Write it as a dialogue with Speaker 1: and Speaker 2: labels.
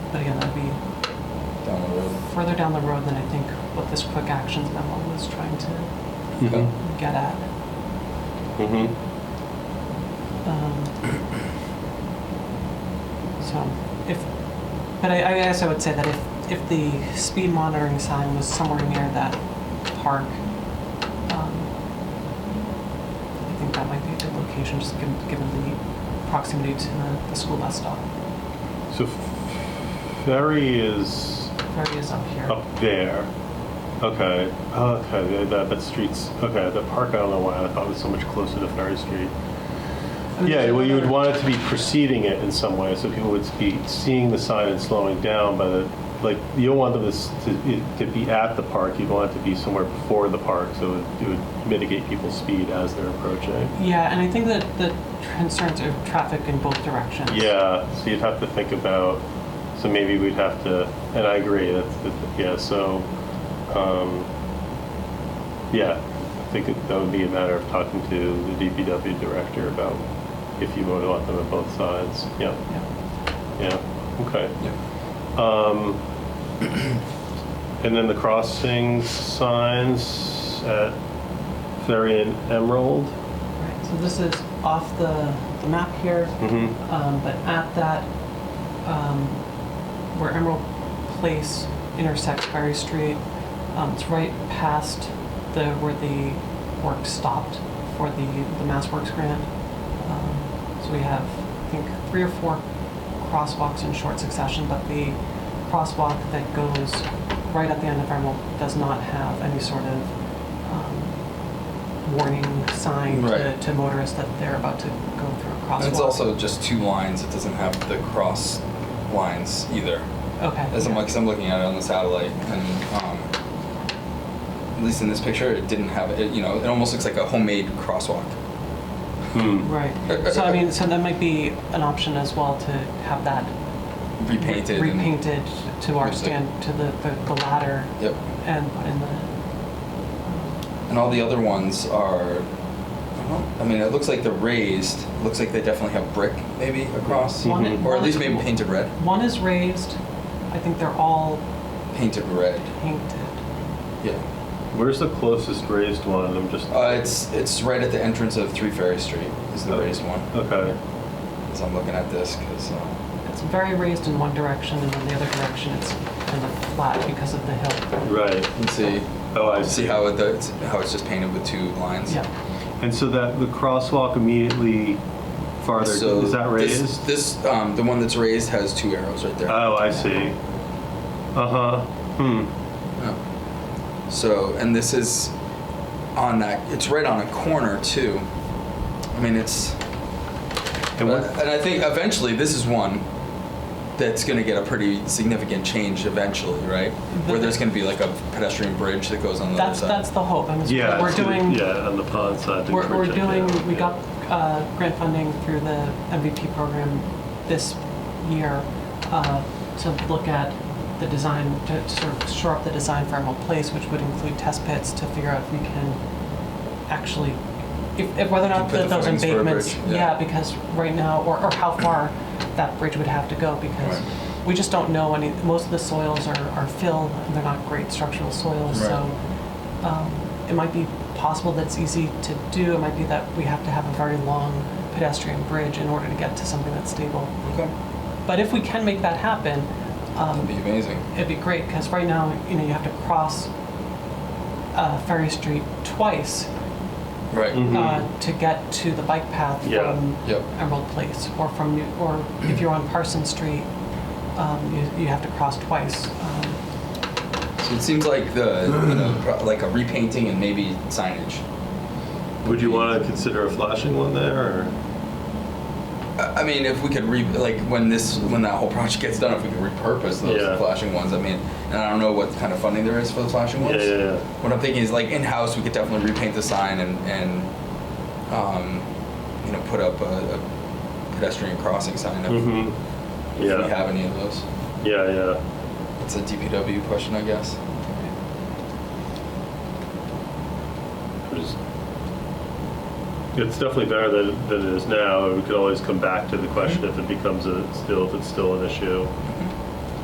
Speaker 1: But again, that'd be
Speaker 2: down the road.
Speaker 1: further down the road than I think what this quick actions memo was trying to
Speaker 2: Yeah.
Speaker 1: get at.
Speaker 3: Mm-hmm.
Speaker 1: Um, So if, but I, I guess I would say that if, if the speed monitoring sign was somewhere near that park, um, I think that might be a good location, just given, given the proximity to the, the school bus stop.
Speaker 4: So ferry is
Speaker 1: Ferry is up here.
Speaker 4: up there. Okay, Oh, okay, that, that street's, okay, the park, I don't know why, I thought it was so much closer to Ferry Street.
Speaker 1: And
Speaker 4: Yeah,
Speaker 1: there's
Speaker 4: well, you would
Speaker 1: another-
Speaker 4: want it to be preceding it in some way, so people would be seeing the sign and slowing down, but, like, you don't want them to s- to, it- to be at the park, you'd want it to be somewhere before the park, so it would- it would mitigate people's speed as they're approaching.
Speaker 1: Yeah, and I think that the concerns of traffic in both directions.
Speaker 4: Yeah, so you'd have to think about, so maybe we'd have to, and I agree, that's, that- yeah, so, um, yeah, I think it- that would be a matter of talking to the DPW director about if you would want them on both sides, yeah,
Speaker 1: Yeah.
Speaker 4: yeah, okay.
Speaker 2: Yeah.
Speaker 4: Um, and then the crossing signs at Ferry and Emerald.
Speaker 1: Right, so this is off the, the map here,
Speaker 4: Mm-hmm.
Speaker 1: um, but at that, um, where Emerald Place intersects Berry Street, um, it's right past the, where the work stopped for the, the Mass Works grant. Um, So we have, I think, three or four crosswalks in short succession, but the crosswalk that goes right at the end of Emerald does not have any sort of, um, warning sign to,
Speaker 2: Right.
Speaker 1: to motorists that they're about to go through a crosswalk.
Speaker 2: And it's also just two lines. It doesn't have the cross lines either.
Speaker 1: Okay.
Speaker 2: As I'm,
Speaker 1: yeah.
Speaker 2: like, 'cause I'm looking at it on the satellite, and um, at least in this picture, it didn't have it. You know, it almost looks like a homemade crosswalk.
Speaker 1: Right. So I mean, so that might be an option as well to have that
Speaker 2: Repainted. and-
Speaker 1: repainted to our
Speaker 2: Looks like-
Speaker 1: stand, to the, the the ladder
Speaker 2: Yep.
Speaker 1: and put in the,
Speaker 2: And all the other ones are, I don't- I mean, it looks like they're raised. Looks like they definitely have brick maybe across,
Speaker 1: One-
Speaker 2: or at least maybe painted red.
Speaker 1: one is raised. I think they're all
Speaker 2: Painted red.
Speaker 1: painted.
Speaker 2: Yeah.
Speaker 4: Where's the closest raised one? I'm just.
Speaker 2: Uh, it's it's right at the entrance of Three Ferry Street. Is the raised one?
Speaker 4: Okay.
Speaker 2: As I'm looking at this, because uh,
Speaker 1: It's very raised in one direction and then the other direction it's kind of flat because of the hill.
Speaker 4: Right.
Speaker 2: you can see.
Speaker 4: Oh, I
Speaker 2: See
Speaker 4: see.
Speaker 2: how it it's, how it's just painted with two lines.
Speaker 1: Yeah.
Speaker 4: And so that the crosswalk immediately farther
Speaker 2: So
Speaker 4: is that
Speaker 2: this-
Speaker 4: raised?
Speaker 2: This, um, the one that's raised has two arrows right there.
Speaker 4: oh, I see. Uh huh. Hmm.
Speaker 2: Yeah. So, and this is on that. It's right on a corner too. I mean, it's.
Speaker 4: And
Speaker 2: but-
Speaker 4: what?
Speaker 2: and I think eventually this is one that's going to get a pretty significant change eventually, right? Where there's going to be like a pedestrian bridge that goes on the
Speaker 1: That's,
Speaker 2: other side.
Speaker 1: that's the hope. I mean, so
Speaker 4: Yeah.
Speaker 1: we're
Speaker 4: to the-
Speaker 1: doing,
Speaker 4: yeah, on the pond side. the
Speaker 1: We're, we're
Speaker 4: bridge, yeah,
Speaker 1: doing, we
Speaker 4: yeah.
Speaker 1: got uh, grant funding through the MVP program this year uh, to look at the design, to sort of shore up the design for Emerald Place, which would include test pits to figure out if we can actually, if, if whether or not
Speaker 2: Put the
Speaker 1: that those
Speaker 2: footings for a
Speaker 1: embankments.
Speaker 2: bridge, yeah.
Speaker 1: Yeah, because right now, or, or how far that bridge would have to go, because
Speaker 2: Right.
Speaker 1: we just don't know any, most of the soils are, are fill, and they're not great structural soils,
Speaker 2: Right.
Speaker 1: so um, it might be possible that it's easy to do. It might be that we have to have a very long pedestrian bridge in order to get to something that's stable.
Speaker 2: okay.
Speaker 1: But if we can make that happen,
Speaker 2: That'd
Speaker 1: um,
Speaker 2: be amazing.
Speaker 1: it'd be great because right now, you know, you have to cross uh, Ferry Street twice
Speaker 2: Right.
Speaker 4: Mhm.
Speaker 1: uh, to get to the bike path
Speaker 4: Yeah.
Speaker 1: from
Speaker 2: Hmm. Yep.
Speaker 1: Emerald Place or from New, or if you're on Parsons Street, um, you, you have to cross twice. Um,
Speaker 2: So it seems like the you know, pro- like a repainting and maybe signage.
Speaker 4: Would you want to consider a flashing one there? Or?
Speaker 2: I I mean, if we could re like when this when that whole project gets done, if we could repurpose those
Speaker 4: Yeah.
Speaker 2: flashing ones. I mean, and I don't know what kind of funding there is for the flashing
Speaker 4: Yeah,
Speaker 2: ones.
Speaker 4: yeah, yeah.
Speaker 2: What I'm thinking is like in house, we could definitely repaint the sign and and um, you know put up a, a pedestrian crossing sign if,
Speaker 4: Mm-hmm.
Speaker 2: if we
Speaker 4: Yeah.
Speaker 2: have any of those.
Speaker 4: Yeah, yeah.
Speaker 2: It's a DPW question, I guess.
Speaker 4: We're just- It's definitely better than, than it is now. We could always come back to the question if it becomes a, still, if it's still an issue.